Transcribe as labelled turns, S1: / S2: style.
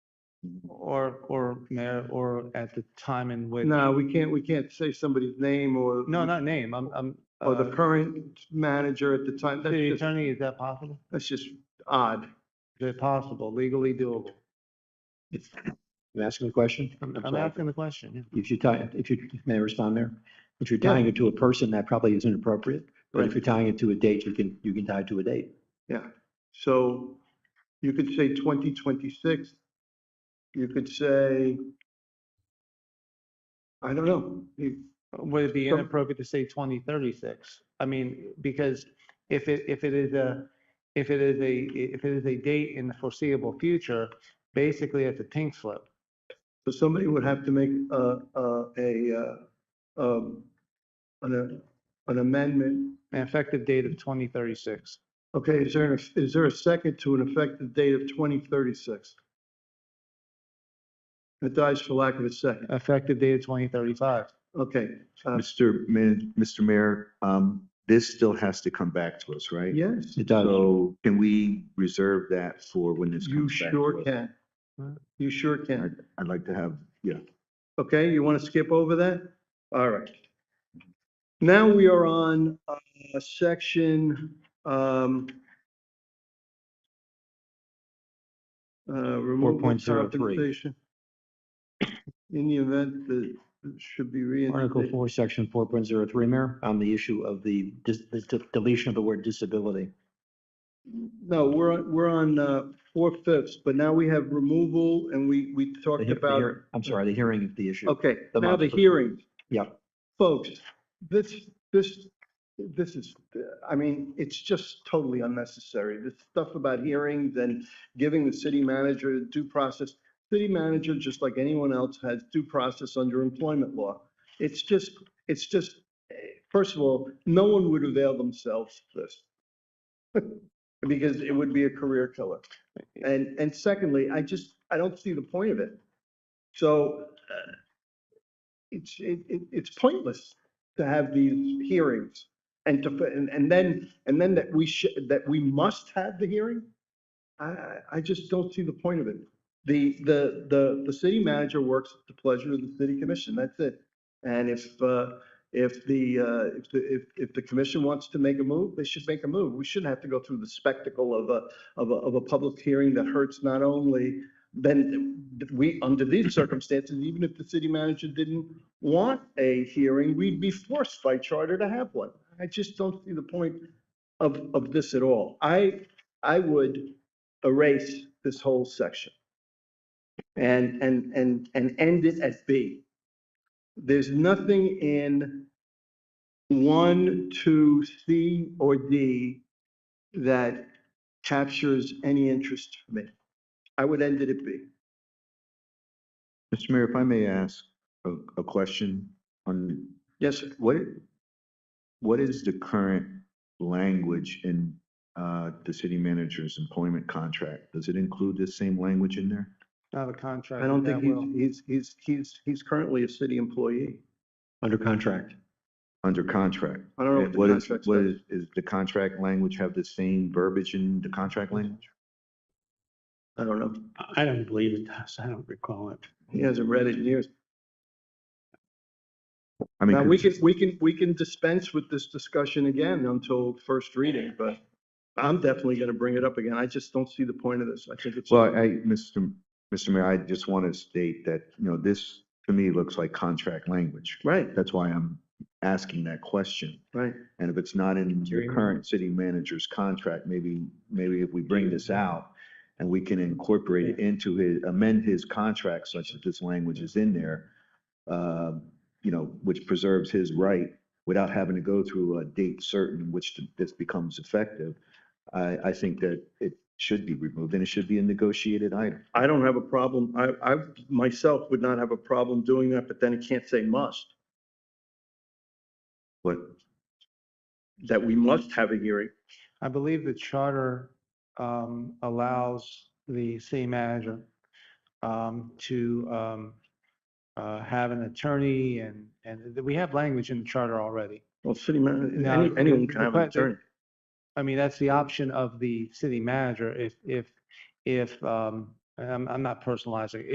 S1: Or, or mayor, or at the time in which, no,
S2: No, we can't, we can't say somebody's name or.
S1: not name, I'm, I'm.
S2: Or
S1: uh,
S2: Oh, the current manager at the time. That's
S1: City
S2: just,
S1: attorney, is that possible?
S2: that's just odd.
S1: Is it possible, legally doable?
S3: You asking a question?
S1: I'm
S3: I'm
S1: I'm
S3: sorry.
S1: asking the question, yeah.
S3: If you tie, if you, may I respond there? If you're
S2: Yeah.
S3: tying it to a person, that probably isn't appropriate. But
S2: Right.
S3: if you're tying it to a date, you can, you can tie it to a date.
S2: So you could say twenty twenty-six. You could say, I don't know. You-
S1: Would it be
S2: Some-
S1: inappropriate to say twenty thirty-six? I mean, because if it, if it is a, if it is a, if it is a date in the foreseeable future, basically it's a pink slip.
S2: So somebody would have to make a, a, a, uh, um, an, an amendment.
S1: An effective date of twenty thirty-six.
S2: Okay, is there, an is there a second to an effective date of twenty thirty-six? It dies for lack of a second.
S1: Effective date of twenty thirty-five.
S2: Okay, uh,
S4: Mr. Min, Mr. Mayor, um, this still has to come back to us, right?
S2: yes,
S3: It does.
S4: So can we reserve that for when this
S2: you
S4: comes back? to
S2: sure
S4: us?
S2: can. You sure can.
S4: I'd like to have, yeah.
S2: Okay, you want to skip over that? All right. Now we are on uh, section. um, uh, removal
S3: 4.03.
S2: compensation. In the event that it should be
S3: Article
S2: reinstated.
S3: four, section four point zero three, Mayor, on the issue of the dis- the de- deletion of the word disability.
S2: No, we're, on- we're on uh, four fifths, but now we have removal and we, we
S3: The
S2: talked
S3: he- the
S2: about.
S3: hear- I'm sorry, the hearing of the issue.
S2: Okay,
S3: The
S2: now the
S3: modification.
S2: hearing.
S3: Yeah.
S2: Folks, this, this, this is, I mean, it's just totally unnecessary. This stuff about hearings and giving the city manager due process. City manager, just like anyone else, has due process under employment law. It's just, it's just, eh, first of all, no one would avail themselves of this. Because it would be a career killer. And, and secondly, I just, I don't see the point of it. So uh, it's, it, it- it's pointless to have these hearings and to, put- and, and then, and then that we should, that we must have the hearing? I, I, I just don't see the point of it. The, the, the, the city manager works at the pleasure of the city commission, that's it. And if, uh, if the, uh, if, the- if, if the commission wants to make a move, they should make a move. We shouldn't have to go through the spectacle of a, of a, of a public hearing that hurts not only then we, under these circumstances, even if the city manager didn't want a hearing, we'd be forced by charter to have one. I just don't see the point of, of this at all. I, I would erase this whole section and, and, and, and end it at B. There's nothing in one, two, C, or D that captures any interest for me. I would end it at B.
S4: Mr. Mayor, if I may ask a, a question on
S2: Yes, sir.
S4: what, what is the current language in, uh, the city manager's employment contract? Does it include this same language in there?
S1: Not a contract.
S2: I don't
S1: that
S2: think
S1: will-
S2: he's, he's, he's, he's, he's currently a city employee.
S3: Under contract.
S4: Under contract?
S2: I don't know
S4: And
S2: what the
S4: What is,
S2: contract
S4: what
S2: says.
S4: is, is the contract language have the same verbiage in the contract language?
S2: I don't know.
S5: I don't believe it does. I don't recall it.
S2: He hasn't read it in years.
S4: I mean,
S2: Now, we can, we can, we can dispense with this discussion again until first reading, but I'm definitely gonna bring it up again. I just don't see the point of this. I think it's.
S4: Well, I, Mr. Mr. Mayor, I just want to state that, you know, this to me looks like contract language.
S2: Right,
S4: That's why I'm asking that question.
S2: right.
S4: And if it's not in your current city manager's contract, maybe, maybe if we bring this out and we can incorporate it into his, amend his contract such that this language is in there, uh, you know, which preserves his right without having to go through a date certain in which this becomes effective. I, I think that it should be removed and it should be a negotiated item.
S2: I don't have a problem. I, I myself would not have a problem doing that, but then it can't say must,
S4: But
S2: that we must have a hearing.
S1: I believe the charter um, allows the city manager um, to um, uh, have an attorney and, and th- we have language in the charter already.
S2: Well, city man,
S1: No,
S2: any-
S1: the-
S2: anyone can
S1: the
S2: have an
S1: que- the-
S2: attorney.
S1: I mean, that's the option of the city manager if, if, if, um, and I'm, I'm not personalizing,